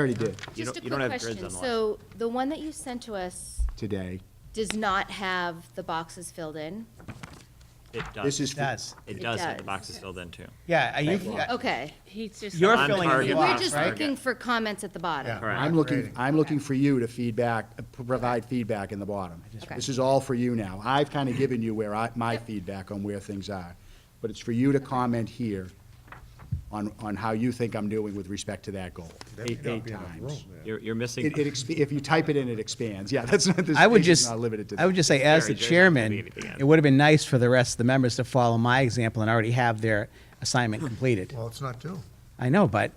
already did You Just don't- a you don't quick have grids question. on the So the one that you sent to us today. does not have the boxes filled in? It does. This is, Does. It does have the does. boxes filled in too. Yeah, are you, Okay. He's just. you're On filling in the target, We're on box, just target. right? looking for comments at the bottom. Correct. I'm looking, Right. I'm looking for you to feedback, uh, provide feedback in the bottom. Okay. This is all for you now. I've kind of given you where I, my feedback on where things are. But it's for you to comment here on, on how you think I'm doing with respect to that goal. Eight, eight times. You're, you're missing. It, it, exp- if you type it in, it expands. Yeah, that's not, this I would page is just, not limited to that. I would just say, as the Jerry, Jerry's not gonna chairman, leave it again. it would have been nice for the rest of the members to follow my example and already have their assignment completed. Well, it's not due. I know, but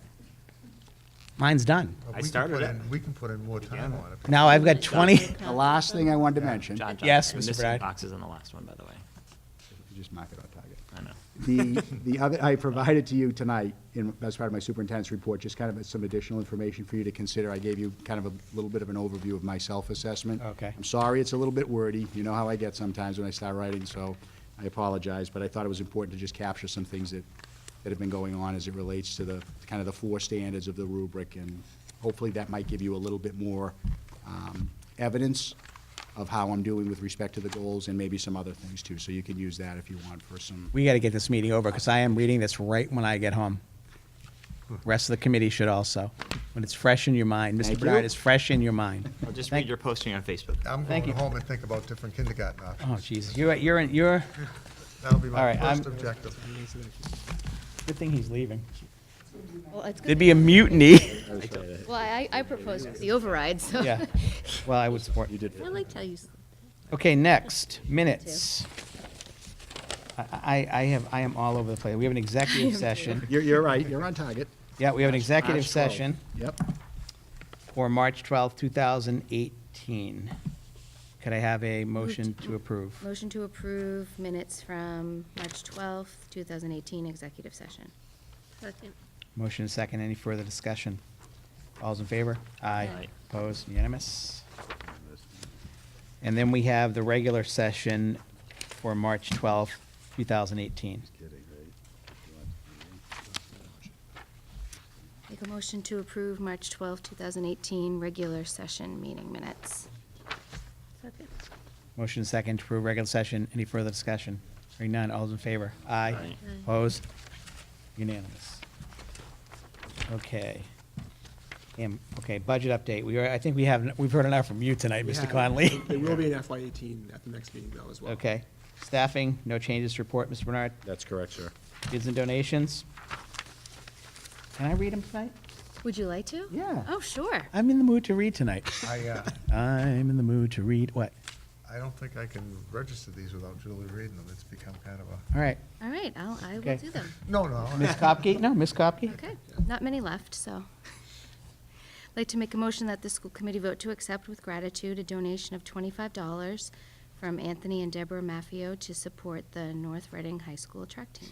mine's done. But I we can started put it. in- We can put in more time on it. Now I've got 20, The last thing I wanted to mention, John, John, Yes, you're Mr. missing Brad. boxes on the last one, by the way. just mark it on target. I know. The, the other, I provided to you tonight, in, as part of my superintendent's report, just kind of some additional information for you to consider. I gave you kind of a little bit of an overview of my self-assessment. Okay. I'm sorry, it's a little bit wordy. You know how I get sometimes when I start writing, so I apologize. But I thought it was important to just capture some things that, that have been going on as it relates to the, kind of the four standards of the rubric. And hopefully that might give you a little bit more, um, evidence of how I'm doing with respect to the goals and maybe some other things too. So you can use that if you want for some we got to get this meeting over because I am reading this right when I get home. Rest of the committee should also, when it's fresh in your mind. Mr. Thank Bernard you. is fresh in your mind. I'll just Thank- read your posting on Facebook. I'm Thank going you. home and think about different kindergarten Oh, options. Jesus, you're, you're, in- you're, That'll be All my right, I'm- first objective. good thing he's leaving. Well, it's good There'd be a mutiny. that- Well, I, I proposed the override, so. Yeah, well, I would support. You I liked how you, s- Okay, next, minutes. I, I I have, I am all over the place. We have an executive session. You're, you're right, you're on target. Yeah, we have an executive March 12th. session Yep. for March twelfth, two 2018. Could I have a motion to approve? motion to approve minutes from March 12th, 2018 executive session. Motion and second, any further discussion? All's in favor? Aye. Aye. Opposed, unanimous? And then we have the regular session for March twelfth, two 2018. Make a motion to approve March 12th, 2018 regular session meeting minutes. Motion and second to approve regular session. Any further discussion? Hearing none. All's in favor? Aye. Aye. Opposed? Unanimous. Okay. Um, Okay, budget update. We are, I think we have, we've heard enough from you tonight, We Mr. have- Conley. There will be an FY eighteen at the next meeting though as well. Okay. Staffing, no changes to report. Mr. Bernard, That's correct, sir. bids and donations. Can I read them tonight? Would you like to? Yeah. Oh, sure. I'm in the mood to read tonight. I, uh, I'm in the mood to read, what? I don't think I can register these without Julie reading them. It's become kind of a, All right. All right, I'll, I Okay. will do them. no, no. I- Ms. Kopke? No, Ms. Kopke? Okay, not many left, so. I'd like to make a motion that the school committee vote to accept with gratitude a donation of twenty-five dollars from Anthony and Deborah Maffio to support the North Reading High School track team.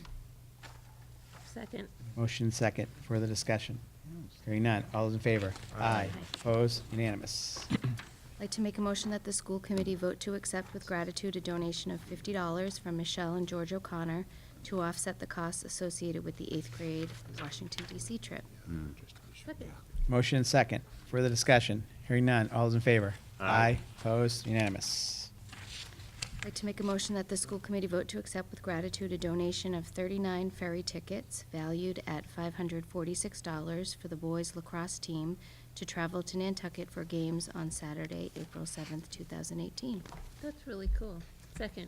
Second. Motion second, further discussion. Hearing none, all those in favor? Aye. Opposed, unanimous. I'd like to make a motion that the school committee vote to accept with gratitude a donation of fifty dollars from Michelle and George O'Connor to offset the costs associated with the eighth grade Washington DC trip. Motion second, further discussion. Hearing none, all those in favor? Aye. Opposed, unanimous. I'd like to make a motion that the school committee vote to accept with gratitude a donation of 39 ferry tickets valued at $546 for the boys lacrosse team to travel to Nantucket for games on Saturday, April 7th, 2018. That's really cool. Second.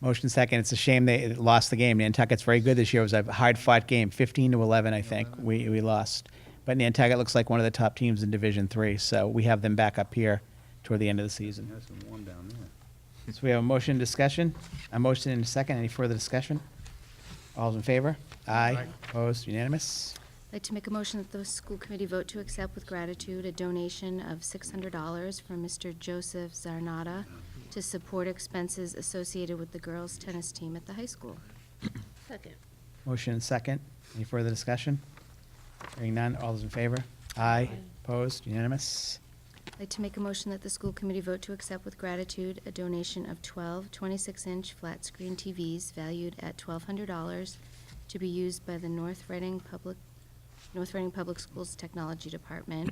Motion second, it's a shame they lost the game. Nantucket's very good this year, it was a hard-fought game, 15 to 11, I think, we, we lost. But Nantucket looks like one of the top teams in Division Three, so we have them back up here toward the end of the season. So we have a motion discussion, a motion and a second, any further discussion? All's in favor? Aye. Opposed, unanimous? I'd like to make a motion that the school committee vote to accept with gratitude a donation of $600 from Mr. Joseph Zarnata to support expenses associated with the girls' tennis team at the high school. Second. Motion and second. Any further discussion? Hearing none, all those in favor? Aye. Opposed? Unanimous? I'd like to make a motion that the school committee vote to accept with gratitude a donation of 12 26-inch flat-screen TVs valued at $1,200 to be used by the North Reading Public North Reading Public Schools Technology Department,